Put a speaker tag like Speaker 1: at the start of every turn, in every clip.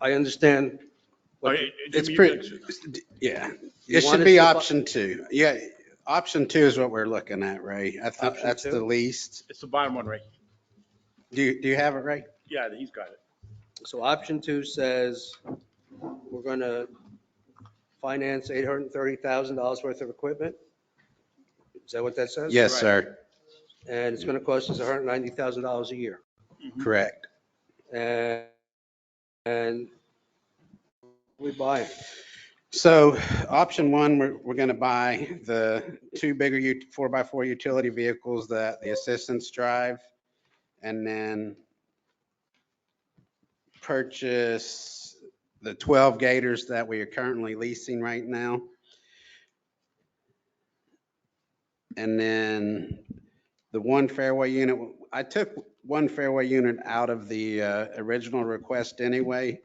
Speaker 1: I understand. what-
Speaker 2: Okay,
Speaker 3: It's
Speaker 2: Oh, Jimmy, you
Speaker 3: pretty,
Speaker 2: mentioned-
Speaker 3: yeah,
Speaker 1: You want
Speaker 3: it should
Speaker 1: it
Speaker 3: be
Speaker 1: to-
Speaker 3: option two. Yeah, option two is what we're looking at, Ray. I think
Speaker 1: Option
Speaker 3: that's
Speaker 1: two?
Speaker 3: the least.
Speaker 2: It's the bottom one, right?
Speaker 3: Do you, do you have it, Ray?
Speaker 2: Yeah, he's got it.
Speaker 1: So option two says we're going to finance $830,000 worth of equipment. Is that what that says?
Speaker 3: Yes,
Speaker 2: right.
Speaker 1: Mm-hmm.
Speaker 3: sir,
Speaker 1: And it's going to cost us $190,000 a year.
Speaker 3: correct.
Speaker 1: And, and we buy it.
Speaker 3: So option one, we're, we're going to buy the two bigger u- four by four utility vehicles that the assistants drive and then purchase the 12 Gators that we are currently leasing right now. And then the one fairway unit, I took one fairway unit out of the uh, original request anyway.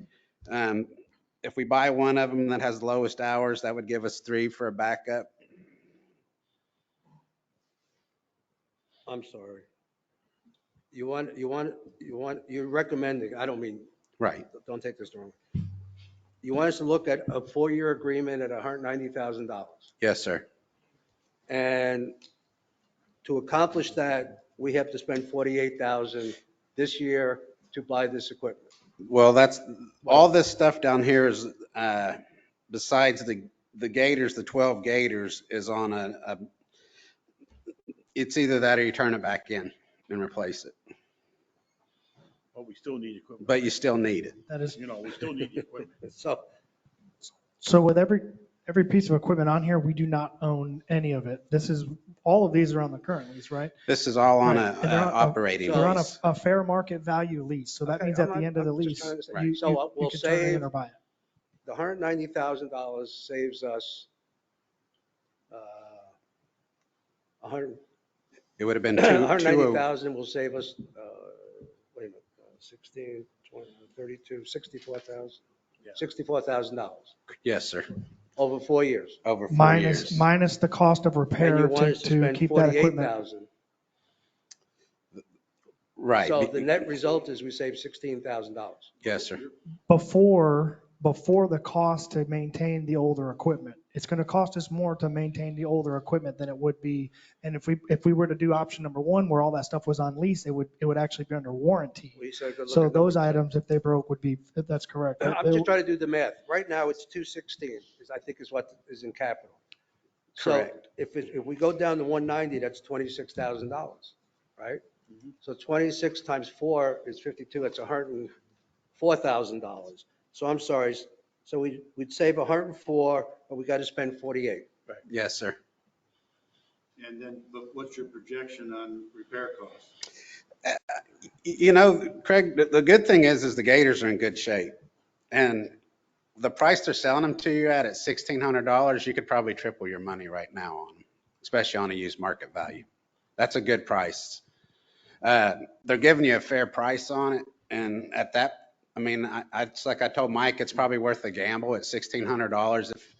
Speaker 3: Um, if we buy one of them that has the lowest hours, that would give us three for a backup.
Speaker 1: I'm sorry. You want, you want, you want, you're recommending, I don't mean,
Speaker 3: Right.
Speaker 1: don't take this the wrong. way. You want us to look at a four-year agreement at $190,000.
Speaker 3: Yes, sir.
Speaker 1: And to accomplish that, we have to spend 48,000 this year to buy this equipment.
Speaker 3: Well, that's, all this stuff down here is, uh, besides the, the gators, the 12 gators is on a, a, it's either that or you turn it back in and replace it,
Speaker 2: But we still need equipment.
Speaker 3: but you still need it.
Speaker 4: That is,
Speaker 2: You know, we still need the equipment.
Speaker 1: So,
Speaker 4: so with every, every piece of equipment on here, we do not own any of it. This is, all of these are on the current lease, right?
Speaker 3: This is all on a,
Speaker 4: Right, and they're
Speaker 3: uh,
Speaker 4: on-
Speaker 3: operating
Speaker 4: They're on a,
Speaker 3: lease.
Speaker 4: a fair market value lease, so that
Speaker 1: Okay,
Speaker 4: means
Speaker 1: I'm
Speaker 4: at the
Speaker 1: not-
Speaker 4: end of the
Speaker 1: I'm just
Speaker 4: lease,
Speaker 1: trying to say-
Speaker 4: you, you
Speaker 1: So, uh,
Speaker 4: you
Speaker 1: we'll
Speaker 4: can turn it
Speaker 1: save-
Speaker 4: in or buy it.
Speaker 1: the $190,000 saves us uh, 100
Speaker 3: It would have been two, two oh-
Speaker 1: 190,000 will save us, uh, wait a minute, uh, 16, 20, 32, 64,000,
Speaker 2: Yeah.
Speaker 1: $64,000
Speaker 3: yes, sir,
Speaker 1: over four years.
Speaker 3: over four
Speaker 4: Minus,
Speaker 3: years.
Speaker 4: minus the cost
Speaker 1: And
Speaker 4: of
Speaker 1: you
Speaker 4: repair
Speaker 1: want
Speaker 4: to,
Speaker 1: us to
Speaker 4: to
Speaker 1: spend
Speaker 4: keep that equipment.
Speaker 1: 48,000.
Speaker 3: Right.
Speaker 1: So the net result is we save $16,000.
Speaker 3: Yes, sir.
Speaker 4: before, before the cost to maintain the older equipment. It's going to cost us more to maintain the older equipment than it would be. And if we, if we were to do option number one, where all that stuff was on lease, it would, it would actually be under warranty.
Speaker 1: We said, good
Speaker 4: So
Speaker 1: looking
Speaker 4: those
Speaker 1: number.
Speaker 4: items, if they broke, would be, if that's correct.
Speaker 2: Uh,
Speaker 1: I'm just trying to do the math. Right now, it's 216, is I think is what is in capital. So
Speaker 3: Correct.
Speaker 1: if, it- if we go down to 190, that's $26,000, right?
Speaker 3: Mm-hmm.
Speaker 1: So 26 times 4 is 52, that's $104,000. So I'm sorry, so we, we'd save 104, but we got to spend 48.
Speaker 3: Yes, sir.
Speaker 5: And then, but what's your projection on repair costs?
Speaker 3: You know, Craig, the, the good thing is, is the Gators are in good shape. And the price they're selling them to you at, at $1,600, you could probably triple your money right now on them, especially on a used market value. That's a good price. Uh, They're giving you a fair price on it. And at that, I mean, I, I- it's like I told Mike, it's probably worth a gamble at $1,600. If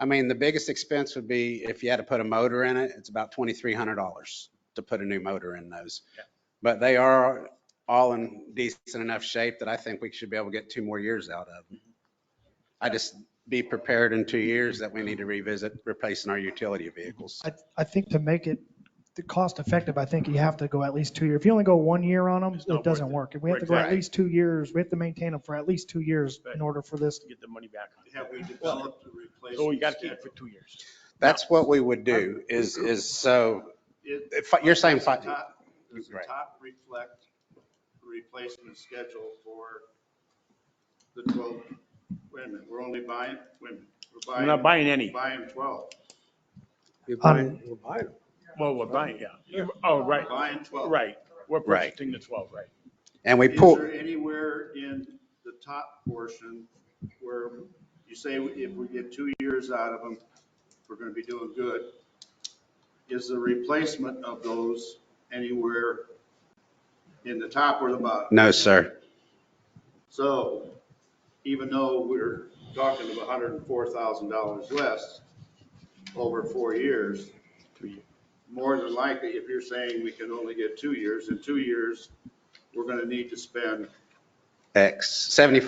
Speaker 3: I mean, the biggest expense would be if you had to put a motor in it, it's about $2,300 to put a new motor in those. But they are all in decent enough shape that I think we should be able to get two more years out of them. I just be prepared in two years that we need to revisit replacing our utility vehicles.
Speaker 4: I, I think to make it the cost effective, I think you have to go at least two years. If you only go one year on them,
Speaker 2: It's not
Speaker 4: it doesn't
Speaker 2: worth it.
Speaker 4: work. If we have to
Speaker 2: Right,
Speaker 4: go at
Speaker 3: right.
Speaker 4: least two years, we have to maintain them for at least two years in
Speaker 2: Right.
Speaker 4: order for this.
Speaker 2: To get the money back. on it.
Speaker 5: Have we developed a replacement?
Speaker 2: So we got to oh, keep it for
Speaker 5: schedule?
Speaker 2: two years.
Speaker 3: That's what we would do is, is so,
Speaker 5: It-
Speaker 3: if you're saying
Speaker 5: does the
Speaker 3: five-
Speaker 5: top- Does the
Speaker 3: Right.
Speaker 5: top reflect the replacement schedule for the 12? Wait a minute, we're only buying, wait a minute.
Speaker 2: We're not buying any.
Speaker 5: Buying 12,
Speaker 1: We're
Speaker 4: Um,
Speaker 1: buying, we're buying them.
Speaker 2: Well, we're buying, yeah. Oh, right,
Speaker 5: buying 12.
Speaker 2: right. We're
Speaker 3: Right.
Speaker 2: purchasing the 12, right.
Speaker 3: and we
Speaker 5: Is
Speaker 3: pull,
Speaker 5: there anywhere in the top portion where you say if we get two years out of them, we're going to be doing good? Is the replacement of those anywhere in the top or the bottom?
Speaker 3: no, sir.
Speaker 5: So even though we're talking of $104,000 less over four years, more than likely, if you're saying we can only get two years, in two years, we're going to need to spend
Speaker 3: X, 75